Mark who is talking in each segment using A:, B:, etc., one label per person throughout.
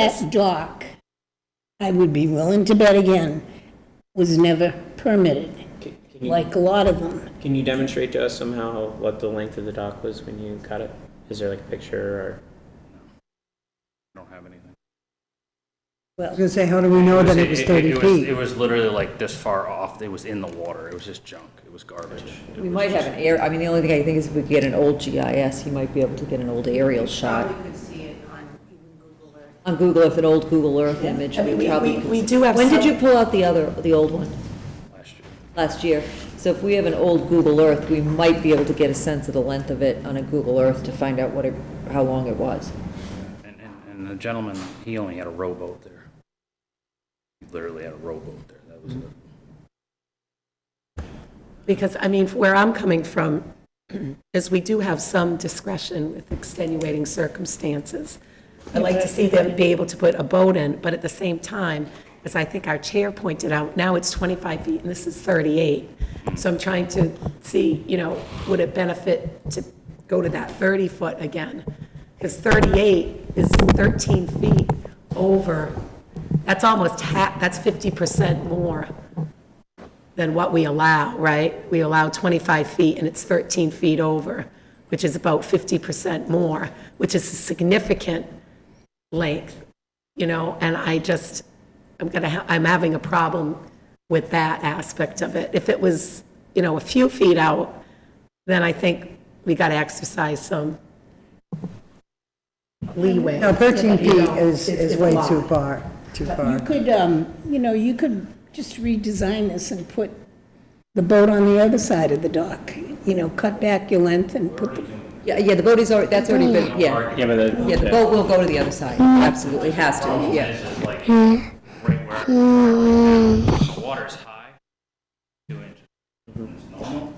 A: That dock, I would be willing to bet again, was never permitted,
B: Can can you,
A: like a lot of them.
B: can you demonstrate to us somehow what the length of the dock was when you cut it? Is there like a picture
C: I don't have anything.
D: I was gonna say, how do we know that it was 30
C: It
D: feet?
C: was literally like this far off, it was in the water, it was just junk, it was garbage.
E: We might have an air, I mean, the only thing I think is if we get an old GIS, you might be able to get an old aerial shot.
F: Probably could see it on even Google Earth.
E: On Google Earth, an old Google Earth image,
G: I mean,
E: we
G: we-
E: probably
G: we-
E: could.
G: we do have
E: When did
G: some-
E: you pull out the other, the old one?
C: Last year.
E: Last year. So if we have an old Google Earth, we might be able to get a sense of the length of it on a Google Earth to find out what it, how long it was.
C: And, and, and the gentleman, he only had a rowboat there. He literally had a rowboat there, that was it.
G: Because, I mean, where I'm coming from is we do have some discretion with extenuating circumstances. I'd like to see them be able to put a boat in, but at the same time, as I think our chair pointed out, now it's 25 feet and this is 38. So I'm trying to see, you know, would it benefit to go to that 30-foot again? Because 38 is 13 feet over, that's almost half, that's 50% more than what we allow, right? We allow 25 feet, and it's 13 feet over, which is about 50% more, which is a significant length, you know, and I just, I'm gonna, ha- I'm having a problem with that aspect of it. If it was, you know, a few feet out, then I think we gotta exercise some leeway.
D: Now, 13
G: You
D: feet
G: know,
D: is,
G: it's-
D: is
G: it's a
D: way
G: lot.
D: too far, too
A: You
D: far.
A: could, um, you know, you could just redesign this and put the boat on the other side of the dock, you know, cut back your length and put the,
E: Yeah, yeah, the boat is already, that's already been, yeah.
B: or? Yeah, but the.
E: Yeah, the boat will go to the other side, absolutely, has to, yeah.
C: This is like,
D: Hmm.
C: right where, the water's high, two inches. It's normal.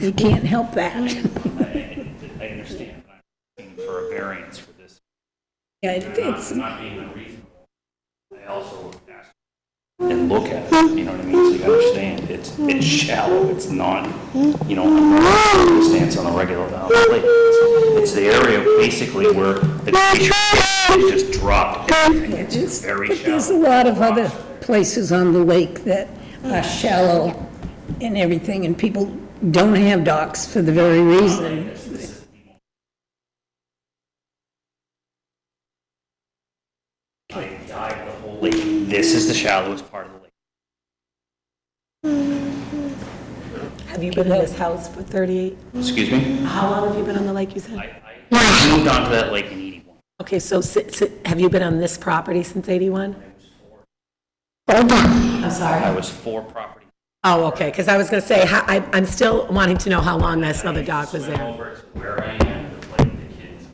A: you can't help that.
C: I, I understand, but I'm asking for a variance for this,
A: Yeah, it- it's,
C: not, not being unreasonable. I also ask. And look at it, you know what I mean, so you understand, it's, it's shallow, it's not, you know, a stance on a regular down the lake. It's it's the area basically where the fish is just dropped, everything. it's very
A: but there's a
C: shallow.
A: lot of other places on the lake that are shallow and everything, and people don't have docks for the very reason.
C: I dived the whole lake, this is the shallowest part of the lake.
G: Have you been in this house for 38?
C: Excuse me?
G: How long have you been on the lake, you said?
C: I, I moved onto that lake in eighty-one.
G: Okay, so si- si- have you been on this property since 81? I'm sorry.
C: I was four properties.
G: Oh, okay, because I was going to say, how- I- I'm still wanting to know how long that other dog was
C: Swim
G: there.
C: over to where I am to play with the kids.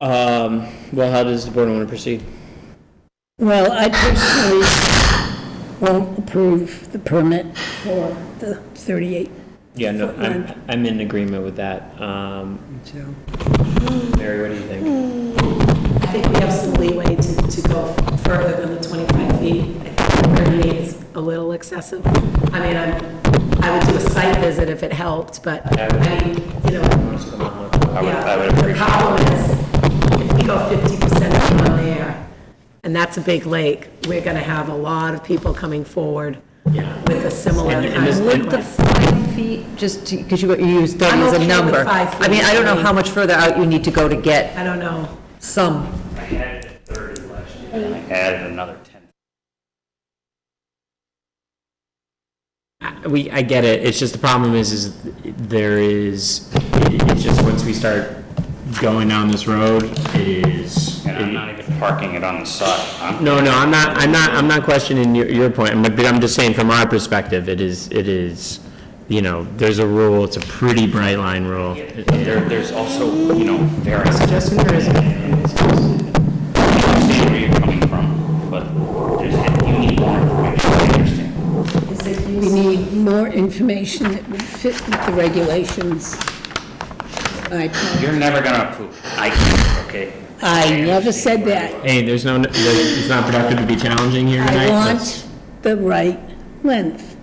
B: Um, well, how does the board want to proceed?
A: Well, I personally won't approve the permit for the 38.
B: Yeah, no, I'm, I'm in agreement with that. Um,
D: So,
B: Mary, what do you
E: Hmm.
B: think?
G: I think we have some leeway to to go further than the 25 feet. I think 38 is a little excessive. I mean, I'm- I would do a site visit if it helped, but, I mean, you know,
B: Let's come on with-
C: I would,
G: yeah.
C: I would
G: The
C: appreciate,
G: problem is, if we go 50% from there, and that's a big lake, we're going to have a lot of people coming forward
B: Yeah.
G: with a similar
B: And- and
G: kind
B: this-
G: of
B: and-
E: Would the
G: request.
E: five feet, just to, because you you use that
G: I'm
E: as
G: okay
E: a
G: with
E: number.
G: five
E: I mean,
G: feet.
E: I don't know how much further out you need to go to get
G: I don't know.
E: some
C: I had thirty last year, and I added another ten.
B: I- We, I get it, it's just the problem is, is there is, it's just once we start going down this road, it is.
C: And I'm not even parking it on the side. I'm-
B: No, no, I'm not, I'm not, I'm not questioning your, your point, I'm- but I'm just saying from our perspective, it is, it is, you know, there's a rule, it's a pretty bright line rule.
C: There, there's also, you know, variance.
B: Suggesting there is-
C: I understand where you're coming from, but there's, you need more information, I understand.
A: We need more information that would fit with the regulations. I,
C: You're never gonna approve, I can't, okay?
A: I never said that.
B: Hey, there's no, there's- it's not productive to be challenging here
A: I
B: tonight. Let's-
A: want the right length.